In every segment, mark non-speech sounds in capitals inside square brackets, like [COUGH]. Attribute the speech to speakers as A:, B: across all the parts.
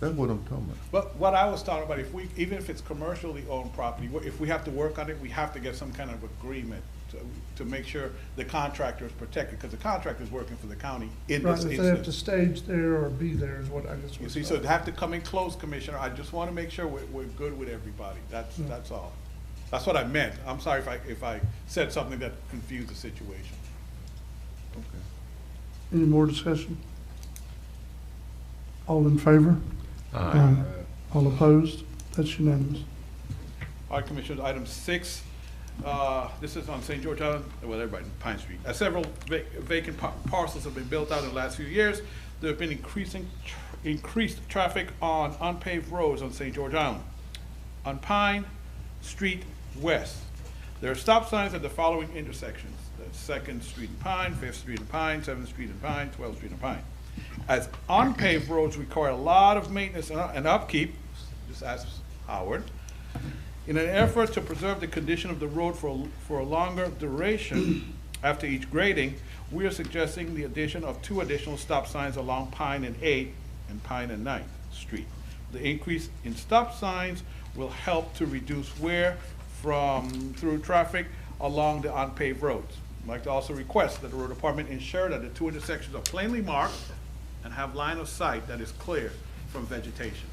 A: That's what I'm talking about.
B: But what I was talking about, if we, even if it's commercially owned property, wh- if we have to work on it, we have to get some kind of agreement to, to make sure the contractor is protected, because the contractor's working for the county in
C: Right,
B: this
C: if they have to
B: instance.
C: stage there or be there is what I just
B: You
C: was
B: see,
C: saying.
B: so to have to come in close, Commissioner, I just want to make sure we're, we're good with everybody, that's,
C: Yeah.
B: that's all. That's what I meant, I'm sorry if I, if I said something that confused the situation.
C: Any more discussion? All in favor? Aye. All opposed? That's unanimous.
B: All right, Commissioners, item six, uh, this is on St. George Island, well, everybody, Pine Street. Uh, Several va- vacant par- parcels have been built out in the last few years. There have been increasing, tr- increased traffic on unpaved roads on St. George Island. On Pine Street West, there are stop signs at the following intersections. That's Second Street and Pine, Fifth Street and Pine, Seventh Street and Pine, Twelfth Street and Pine. As unpaved roads require a lot of maintenance and and upkeep, just ask Howard, in an effort to preserve the condition of the road for, for a longer duration after each grading, we are suggesting the addition of two additional stop signs along Pine and Eighth and Pine and Ninth Street. The increase in stop signs will help to reduce wear from, through traffic along the unpaved roads. I'd like to also request that the road department ensure that the two intersections are plainly marked and have line of sight that is clear from vegetation.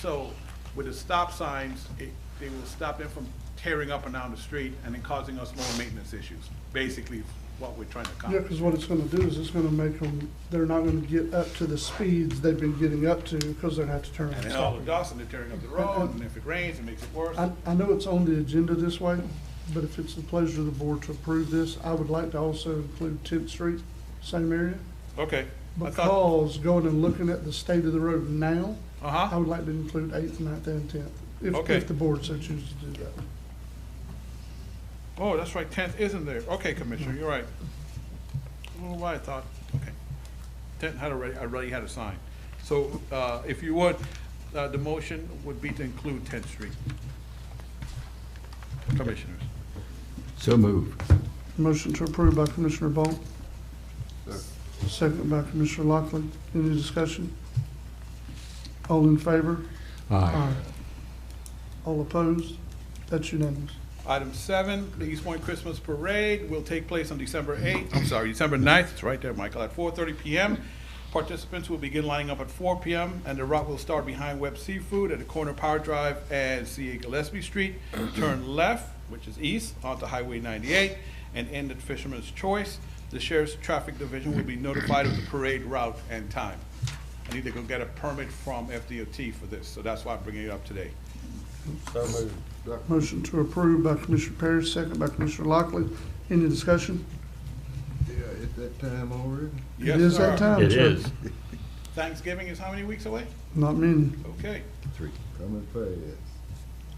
B: So with the stop signs, it, they will stop them from tearing up and down the street and then causing us more maintenance issues, basically what we're trying to
C: Yeah,
B: accomplish.
C: because what it's going to do is it's going to make them, they're not going to get up to the speeds they've been getting up to because they're going to have to turn.
B: And
C: and
B: then all
C: stop.
B: the dust and they're tearing up the road, and if it rains, it makes it worse.
C: I, I know it's on the agenda this way, but if it's the pleasure of the board to approve this, I would like to also include 10th Street, same area.
B: Okay. I thought-
C: Because going and looking at the state of the road now, I
B: Uh-huh.
C: would like to include eighth, ninth, and tenth, if,
B: Okay.
C: if the board so chooses to do that.
B: Oh, that's right, tenth isn't there. Okay, Commissioner, you're right. I don't know why I thought, okay. Tenth had already, I already had a sign. So, uh, if you would, uh, the motion would be to include Tenth Street. Commissioners.
D: So move.
C: Motion to approve by Commissioner Bolt. Second by Commissioner Lockley. Any discussion? All in favor?
D: Aye.
C: All opposed? That's unanimous.
B: Item seven, the East Point Christmas Parade will take place on December 8th, I'm sorry, December 9th, it's right there, Michael, at 4:30 PM. Participants will begin lining up at 4 PM, and the route will start behind Webb Seafood at the corner of Power Drive and CA Gillespie [CLEARS THROAT] Street. Turn left, which is east, onto Highway 98, and end at Fisherman's Choice. The Sheriff's Traffic Division will be notified of the parade route and time. I need to go get a permit from FDOT for this, so that's why I'm bringing it up today.
A: So moved.
C: Motion to approve by Commissioner Parrish, second by Commissioner Lockley. Any discussion?
A: Yeah, it's that time already?
B: Yes,
C: It is
B: sir.
C: that time,
D: It
C: sir.
D: is.
B: Thanksgiving is how many weeks away?
C: Not many.
B: Okay.
A: Coming fast.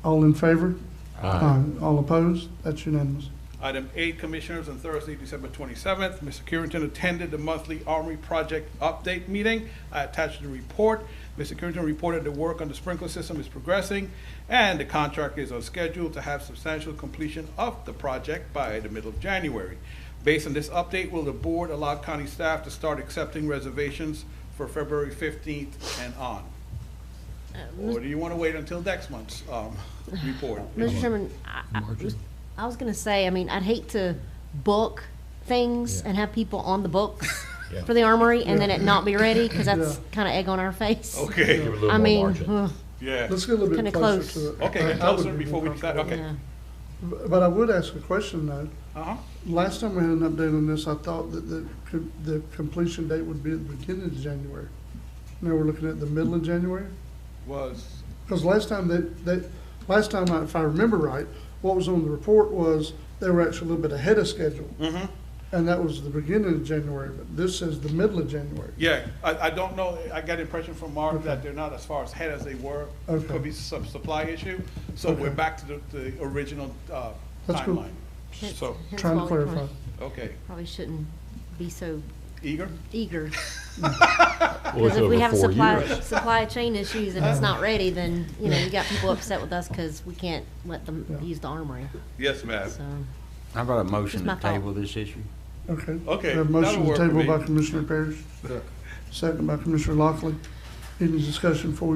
C: All in favor?
D: Aye.
C: All opposed? That's unanimous.
B: Item eight, Commissioners, on Thursday, December 27th, Mr. Carrington attended the monthly Armory Project Update Meeting. I attached the report. Mr. Carrington reported the work on the sprinkler system is progressing, and the contractor is on schedule to have substantial completion of the project by the middle of January. Based on this update, will the board allow county staff to start accepting reservations for February 15th and on? Or do you want to wait until next month's um, report?
E: Mr. Chairman, I- I was- I was going to say, I mean, I'd hate to book things and have people on the books
D: [LAUGHS]
E: for the armory and then it not be ready, because that's kind of egg on our face.
B: Okay,
E: I mean, ugh,
B: yeah.
C: Let's get a little bit
E: Kinda
C: closer to
E: close.
C: it.
B: Okay,
C: I- I
B: get closer
C: would be
B: before we
C: more
B: decide, okay.
E: yeah.
C: comfortable. But I would ask a question, though.
B: Uh-huh.
C: Last time we had an update on this, I thought that the, co- the completion date would be at the beginning of January. Now we're looking at the middle of January?
B: Was,
C: Because last time that, that, last time, I- if I remember right, what was on the report was they were actually a little bit ahead of schedule.
B: Mhm.
C: And that was the beginning of January, but this says the middle of January.
B: yeah, I, I don't know, I got the impression from Mark that they're not as far ahead as they were.
C: Okay.
B: Could be some supply issue, so we're back to the, the original, uh,
C: That's cool.
B: timeline.
E: Hence-
B: So,
E: hence
C: Trying
E: why
C: to
E: we
C: clarify.
B: okay,
E: Probably shouldn't be so
B: eager?
E: eager.
D: [LAUGHS] Well, it's
E: Because if we
D: over
E: have
D: four
E: supply,
D: years. [LAUGHS]
E: supply chain issues and it's not ready, then, you know, you got people upset with us because we can't let them use the armory,
B: Yes, ma'am.
E: so.
F: How about a motion
E: Just my
F: to
E: thought.
F: table this issue?
C: Okay.
B: Okay,
C: We have
B: that'll
C: a motion to
B: work for
C: table by
B: me.
C: Commissioner Parrish, second by Commissioner Lockley. Any discussion before we